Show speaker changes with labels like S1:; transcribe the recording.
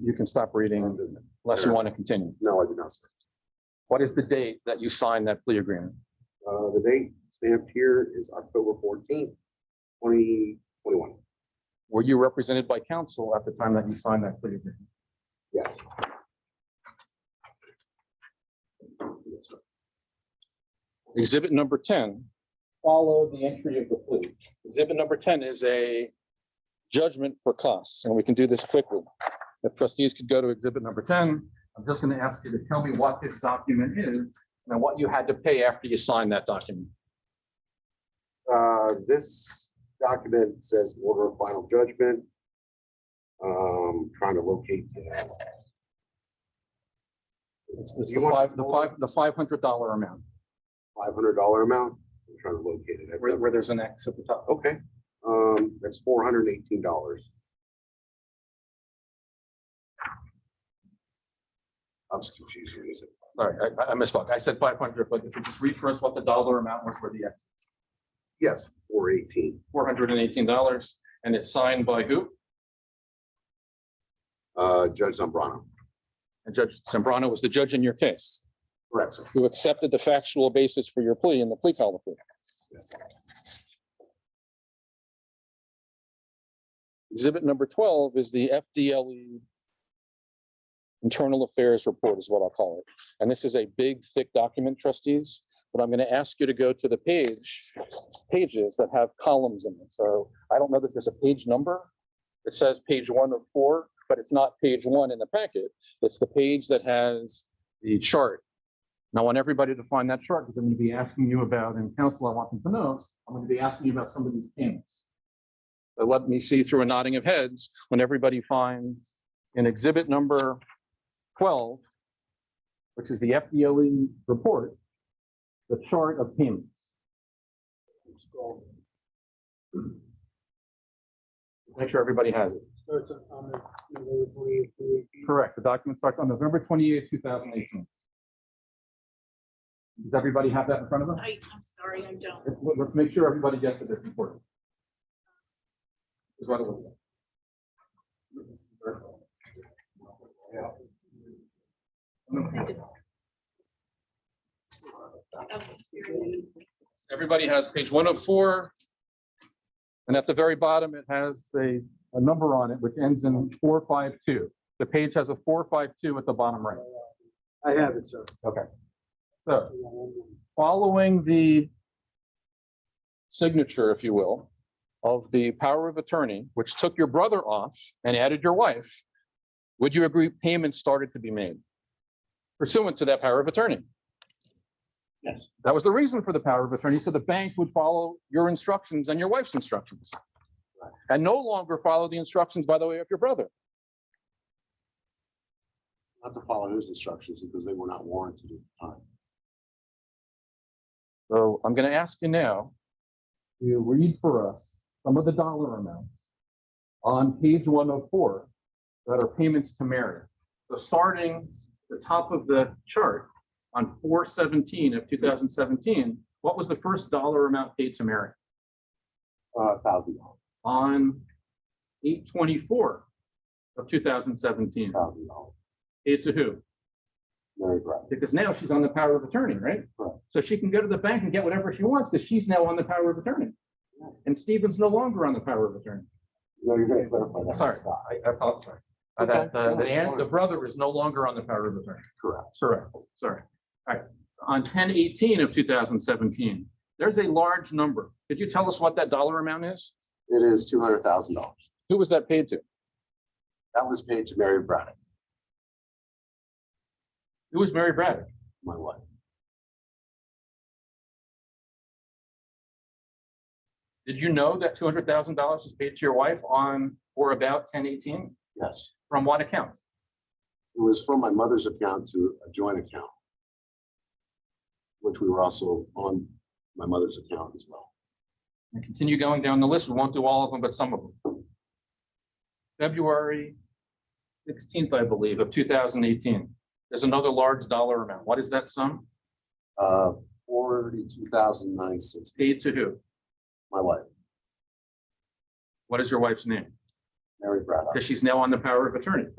S1: you can stop reading unless you want to continue.
S2: No, I did not. sir.
S1: What is the date that you signed that plea agreement?
S2: Uh, the date stamped here is October fourteenth, twenty twenty-one.
S1: Were you represented by counsel at the time that you signed that plea agreement?
S2: Yes. Yes, sir.
S1: Exhibit number ten. Follow the entry of the plea. Exhibit number ten is a judgment for costs, and we can do this quickly. If trustees could go to exhibit number ten, I'm just going to ask you to tell me what this document is and what you had to pay after you signed that document.
S2: Uh, this document says order of final judgment. Um, trying to locate. the-
S1: It's it's
S2: You
S1: the
S2: want-
S1: five, the five, the five hundred dollar amount
S2: five hundred dollar amount. I'm trying to locate it. I've
S1: where,
S2: never-
S1: where there's an X at the top.
S2: Okay, um, that's four hundred and eighteen dollars. I'm just confused. here, is it?
S1: Sorry, I- I, I misspoke. I said five hundred, but if you just read for us what the dollar amount was for the X,
S2: Yes, four eighteen.
S1: four hundred and eighteen dollars, and it's signed by who?
S2: Uh, Judge Zambrano.
S1: And Judge Sembrano was the judge in your case.
S2: Correct, sir.
S1: who accepted the factual basis for your plea in the plea colloquy. Exhibit number twelve is the FDLE E Internal Affairs Report is what I'll call it. And this is a big, thick document, trustees, but I'm going to ask you to go to the page, pages that have columns in them. So I don't know that there's a page number. It says page one of four, but it's not page one in the packet. It's the page that has the chart and I want everybody to find that chart because I'm going to be asking you about, and council, I want them to know, I'm going to be asking you about some of these payments. But let me see through a nodding of heads when everybody finds in exhibit number twelve, which is the FDLE E report, the chart of payments. Make sure everybody has it.
S3: starts on- on the November twenty-eighth, two eighteen.
S1: Correct. The document starts on November twenty-eighth, two thousand eighteen. Does everybody have that in front of them?
S4: I, I'm sorry, I don't.
S1: Let's- Let's make sure everybody gets it, it's important. Is what it was.
S4: think it's- Okay, here it is.
S1: Everybody has page one of four. And at the very bottom, it has a, a number on it, which ends in four, five, two. The page has a four, five, two at the bottom right.
S3: I have it, sir.
S1: So following the signature, if you will, of the power of attorney, which took your brother off and added your wife, would you agree payments started to be made pursuant to that power of attorney?
S3: Yes.
S1: That was the reason for the power of attorney, so the bank would follow your instructions and your wife's instructions. And no longer follow the instructions, by the way, of your brother.
S2: Not to follow his instructions because they were not warranted at the time.
S1: So I'm going to ask you now to read for us some of the dollar amounts on page one oh four that are payments to Mary. So starting the top of the chart on four seventeen of two thousand seventeen, what was the first dollar amount paid to Mary?
S2: Uh, thousand dollars,
S1: On eight twenty-four of two thousand seventeen,
S2: thousand dollars,
S1: paid to who?
S2: Mary Brown.
S1: Because now she's on the power of attorney, right?
S2: Correct.
S1: So she can go to the bank and get whatever she wants, because she's now on the power of attorney. And Stephen's no longer on the power of attorney.
S2: No, you're gonna clarify that.
S1: Sorry, I, I thought, sorry. Uh, That, uh, the, aunt- the brother is no longer on the power of attorney.
S2: Correct.
S1: Correct, sorry. All right, on ten eighteen of two thousand seventeen, there's a large number. Could you tell us what that dollar amount is?
S2: It is two hundred thousand dollars.
S1: Who was that paid to?
S2: That was paid to Mary Brown,
S1: Who was Mary Braddock?
S2: my wife.
S1: Did you know that two hundred thousand dollars was paid to your wife on or about ten eighteen?
S2: Yes.
S1: From what account?
S2: It was from my mother's account to a joint account. Which we were also on my mother's account as well.
S1: and continue going down the list. We won't do all of them, but some of them. February sixteenth, I believe, of two thousand eighteen. There's another large dollar amount. What is that sum?
S2: Uh, forty-two thousand nine sixty,
S1: Paid to who?
S2: my wife,
S1: What is your wife's name?
S2: Mary Brown.
S1: Because she's now on the power of attorney.